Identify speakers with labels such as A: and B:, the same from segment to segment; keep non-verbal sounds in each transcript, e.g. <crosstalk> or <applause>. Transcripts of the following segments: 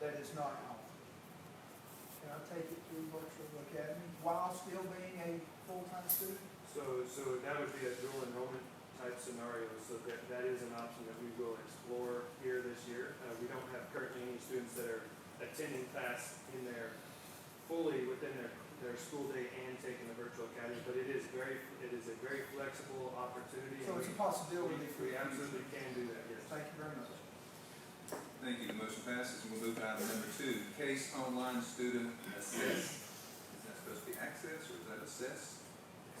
A: that is not alpha. Can I take it through virtual academy while still being a full-time student?
B: So, so that would be a dual enrollment type scenario, so that, that is an option that we will explore here this year. Uh, we don't have currently any students that are attending class in their, fully within their, their school day and taking the virtual academy, but it is very, it is a very flexible opportunity.
A: So it's a
B: and
A: possibility for you.
B: We we absolutely can do that, yes.
A: Thank you very much.
C: Thank you, the motion passes, and we'll move to item number two, case online student assess. Is that supposed to be access, or is that assess?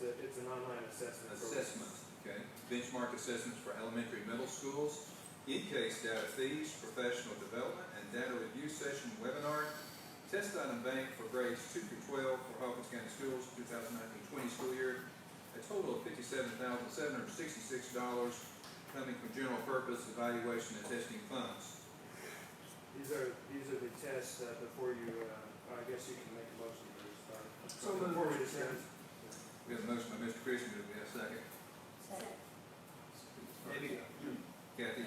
B: It's a, it's an online assessment. program.
C: Assessment, okay, benchmark assessments for elementary, middle schools, in-case data fees, professional development, and data review session webinar, test item bank for grades two through twelve for Hawkins County Schools, 2019-20 school year, a total of fifty-seven thousand seven hundred sixty-six dollars coming from general purpose evaluation and testing funds.
B: These are, these are the tests, uh, before you, uh, I guess you can make a motion to start.
A: So moved.
B: Before we discuss.
C: We have a motion by Mr. Christian, do we have a second?
B: Maybe,
C: Kathy?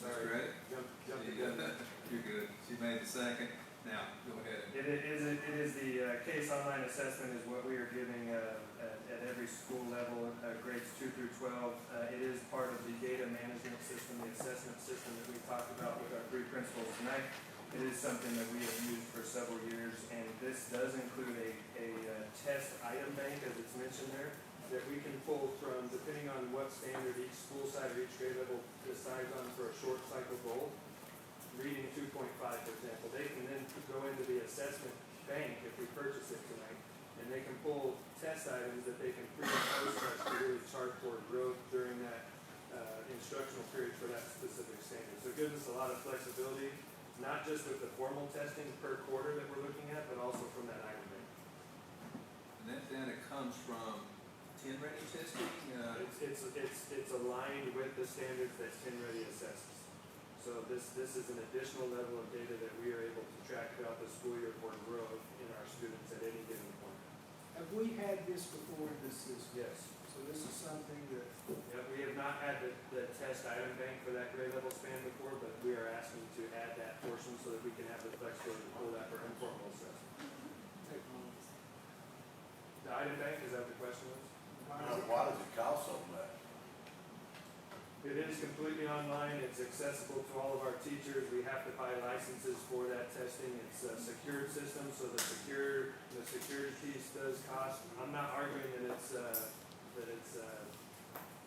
B: sorry,
C: Right?
B: jump, jump the gun.
C: You're good, she <laughs> made the second, now, go ahead and
B: It i- is, it is the uh, case online assessment is what we are giving uh, at, at every school level, uh, grades two through twelve. Uh, It is part of the data management system, the assessment system that we talked about with our three principals tonight. It is something that we have used for several years, and this does include a, a uh, test item bank, as it's mentioned there, that we can pull from, depending on what standard each school side or each grade level decides on for a short cycle goal reading two point five, for example, they can then go into the assessment bank if we purchase it tonight, and they can pull test items that they can pre and post us to really chart toward growth during that, uh, instructional period for that specific standard. So it gives us a lot of flexibility, not just with the formal testing per quarter that we're looking at, but also from that item bank.
C: And that data comes from ten ready testing, uh,
B: It's, it's, it's, it's aligned with the standards that Ready assesses. So this, this is an additional level of data that we are able to track throughout the school year for growth in our students at any given point.
A: Have we had this before in this system?
B: Yes.
A: So this is something that,
B: Yeah, we have not had the, the test item bank for that grade level span before, but we are asking to add that portion so that we can have the flexibility to pull that for informal assessment.
A: take a moment.
B: The item bank, is that what the question was?
A: Why
D: Now, Uh,
A: is it-
D: Why does it cost so much?
B: It is completely online, it's accessible to all of our teachers, we have to buy licenses for that testing, it's a secured system, so the secure, the security piece does cost. I'm not arguing that it's, uh, that it's, uh,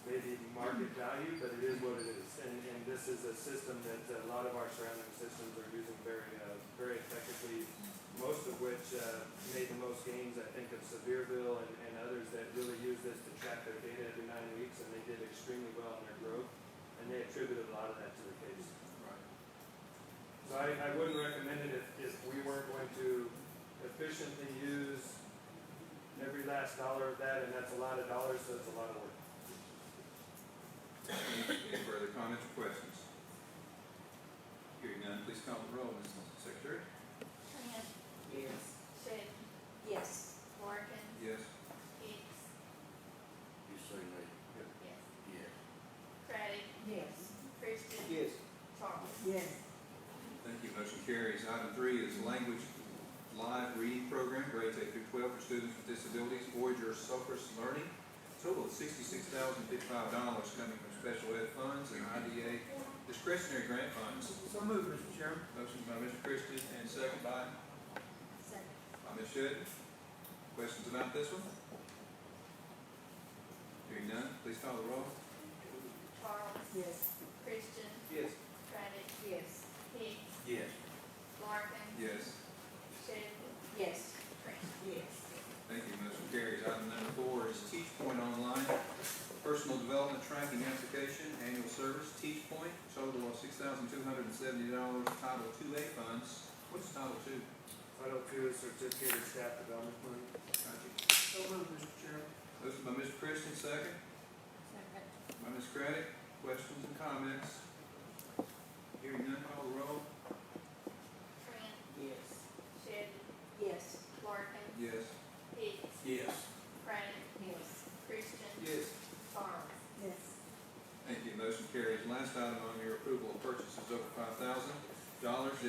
B: maybe market value, but it is what it is. And, and this is a system that a lot of our surrounding systems are using very, uh, very effectively, most of which, uh, made the most gains, I think, of Sevierville and, and others that really use this to track their data every nine weeks, and they did extremely well in their growth, and they attributed a lot of that to the case.
C: right,
B: So I, I wouldn't recommend it if, if we weren't going to efficiently use every last dollar of that, and that's a lot of dollars, so it's a lot of work.
C: any, any further comments or questions? Hearing none, please call the roll, Ms. Secretary.
E: Tran,
F: Yes.
E: Shay,
F: Yes.
E: Larkin,
C: Yes.
E: Hicks,
D: You say me,
E: yes,
D: yes.
E: Craddock,
F: Yes.
E: Christian,
A: Yes.
E: Charles.
F: Yes.
C: Thank you, motion carries. Item three is language live reading program, grades eight through twelve for students with disabilities, Voyager Selfless Learning. Total of sixty-six thousand fifty-five dollars coming from special ed funds and IDA discretionary grant funds.
A: So move, Mr. Chairman.
C: Motion by Mr. Christian and second by
E: Second.
C: By Ms. Shedd. Questions about this one? Hearing none, please call the roll.
E: Charles,
F: Yes.
E: Christian,
C: Yes.
E: Craddock,
F: Yes.
E: Hicks,
D: Yes.
E: Larkin,
C: Yes.
E: Shay,
F: Yes.
E: Tran.
F: Yes.
C: Thank you, motion carries. Item number four is Teach Point Online, Personal Development Tracking Application, Annual Service, Teach Point, total of six thousand two hundred and seventy dollars, Title Two A funds. What's Title Two?
B: Title two is certificate of staff development money.
C: Gotcha.
A: So move, Mr. Chairman.
C: Motion by Mr. Christian, second.
E: Second.
C: By Ms. Craddock, questions and comments? Hearing none, call the roll.